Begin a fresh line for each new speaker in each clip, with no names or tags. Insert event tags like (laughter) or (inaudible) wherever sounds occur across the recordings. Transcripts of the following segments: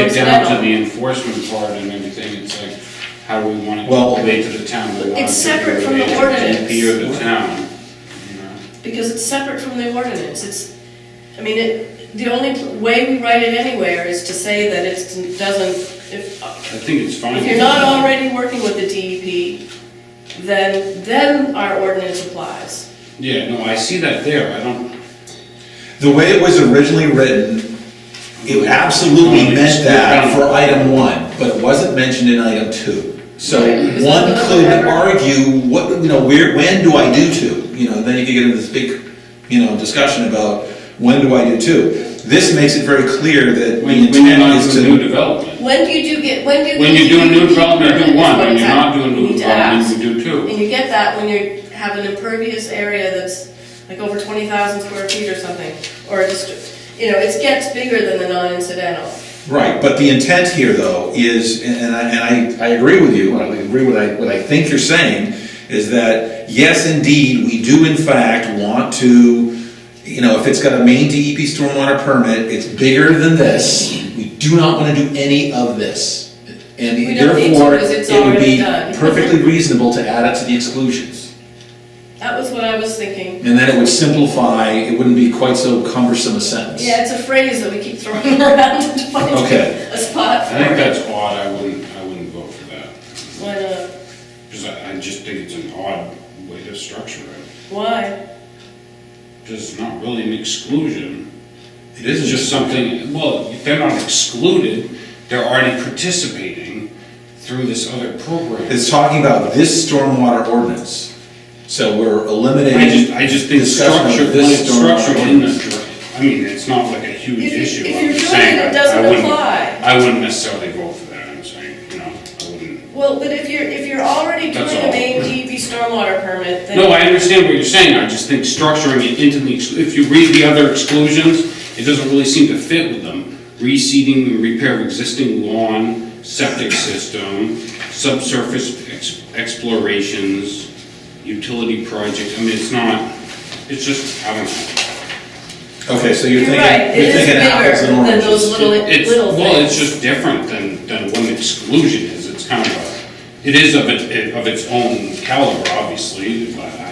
down to
incidental.
the enforcement part and everything, it's like, how do we want it
Well-
to relate to the town? Do we want
It's
it to
separate from the
relate to
ordinance.
DEP or the town, you know?
because it's separate from the ordinance, it's, I mean, it, the only pl- way we write it anywhere is to say that it doesn't, if,
I think it's fine.
if you're not already working with the DEP, then, then our ordinance applies.
Yeah, no, I see that there, I don't,
The way it was originally written, it absolutely meant that for item one, but it wasn't mentioned in item two. So one could argue, what, you know, where, when do I do two? You know, then you could get into this big, you know, discussion about when do I do two? This makes it very clear that the
when, when you're
intent
not
is
doing new
to.
development.
When do you do get, when do you?
When you do a new
DEP
development, you do
permit is
one,
what
when you're
it's
not
at.
doing
You
new
need to
development,
ask.
you do two.
And you get that when you have an impervious area that's like over twenty thousand square feet or something, or just, you know, it gets bigger than the non-incidental.
Right, but the intent here though is, and- and I, and I, I agree with you, and I agree with I, what I think you're saying, is that yes, indeed, we do in fact want to, you know, if it's got a main DEP stormwater permit, it's bigger than this, we do not wanna do any of this.
We
And
don't need to,
therefore,
'cause it's
it would
already
be
done.
perfectly reasonable to add it to the exclusions.
That was what I was thinking.
And then it would simplify, it wouldn't be quite so cumbersome a sentence.
Yeah, it's a phrase that we keep throwing (laughs) around to find
Okay.
a spot
I
for
think
it.
that's odd, I wouldn't, I wouldn't vote for that,
Why not?
because I, I just think it's an odd way to structure it.
Why?
Because it's not really an exclusion,
It
it's
isn't
just something, well, they're not excluded, they're already participating through this other program.
It's talking about this stormwater ordinance. So we're eliminating.
I just, I just think
discussion of
structure, when
this
it's
stormwater
structured in the,
ordinance.
I mean, it's not like a huge
If you-
issue,
if
I'm
you're
just
doing it,
saying,
it
I- I
doesn't
wouldn't,
apply.
I wouldn't necessarily vote for that, I'm saying, you know, I wouldn't.
Well, but if you're, if you're already doing
That's
a
all.
main DEP stormwater permit, then.
No, I understand what you're saying, I just think structuring it into the, ex- if you read the other exclusions, it doesn't really seem to fit with them. Reseeding and repair of existing lawn, septic system, subsurface ex- explorations, utility projects, I mean, it's not, it's just, I don't know.
Okay, so you're
You're right, it
thinking, you're
is
thinking apples
bigger
and
than those
oranges.
little,
It's,
little things.
well, it's just different than, than what an exclusion is, it's kind of, a- it is of it, of its own caliber, obviously, but I,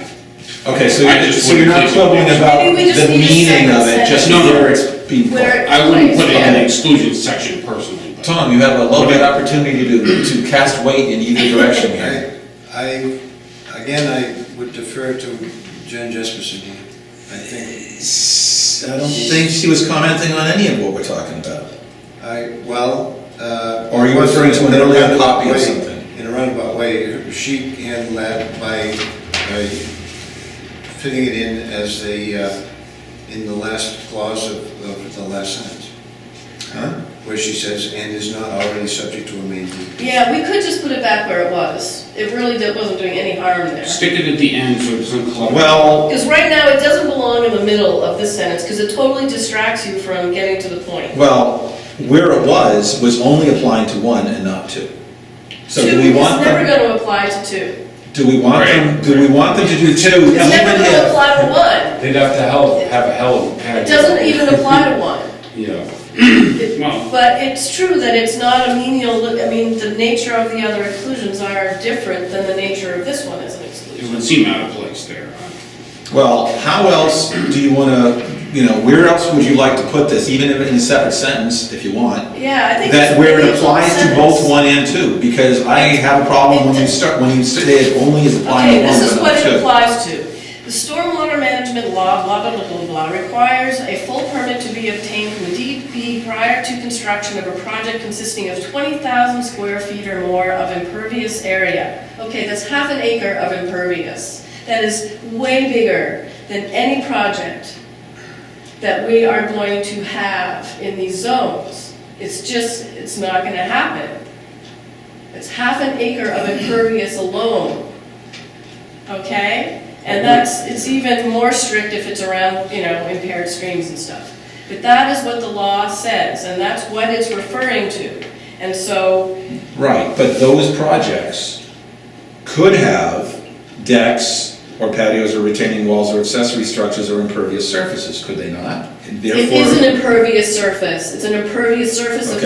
Okay, so
I
you're,
just
so you're
wouldn't
not
think-
quibbling about
Maybe we just
the
need a
meaning of
second
it, just
sentence.
where it's being put.
Where-
I wouldn't put it in the
Okay.
exclusion section personally, but.
Tom, you have a little bit opportunity to, to cast weight in either direction here.
I, I- again, I would defer to Jen Jesperson. I think,
I don't think she was commenting on any of what we're talking about.
I, well, uh...
Or are you referring to an
in a
earlier
roundabout
copy of
way-
something?
In a roundabout way, she handled that by, by fitting it in as the, uh, in the last clause of, of the last sentence,
Huh?
where she says, "and is not already subject to a main DEP."
Yeah, we could just put it back where it was. It really did- wasn't doing any harm there.
Stick it at the end so it doesn't clutter.
Well,
Because right now, it doesn't belong in the middle of this sentence, because it totally distracts you from getting to the point.
well, where it was, was only applying to one and not two. So
Two
do we
is
want
never
them,
gonna apply to two.
do we want them, do we want them to do two, even
It's never gonna
if?
apply to one.
They'd have to hell, have a hell of a
It
package.
doesn't even apply to one.
Yeah.
It-
(clears throat) Well,
But it's true that it's not a menial, li- I mean, the nature of the other exclusions are different than the nature of this one as an
it
exclusion.
would seem out of place there.
Well, how else do you want to, you know, where else would you like to put this, even if in a separate sentence, if you want?
Yeah, I think.
That
it's
where
really
it applies to
sentence.
both one and two, because I have a problem when you start, when you say it only is
Okay,
applying to one,
this is what
but
it
not
applies to. The stormwater management law, blah, blah, blah, blah, blah, requires a full permit to be obtained from the DEP prior to construction of a project consisting of 20,000 square feet or more of impervious area. Okay, that's half an acre of impervious. That is way bigger than any project that we are going to have in these zones. It's just, it's not gonna happen. It's half an acre of impervious alone. Okay? And that's, it's even more strict if it's around, you know, impaired streams and stuff. But that is what the law says, and that's what it's referring to. And so,
two. Right, but those projects could have decks or patios or retaining walls or accessory structures or impervious surfaces, could they not? And
it
Therefore.
is an impervious surface, it's an impervious surface of
Okay.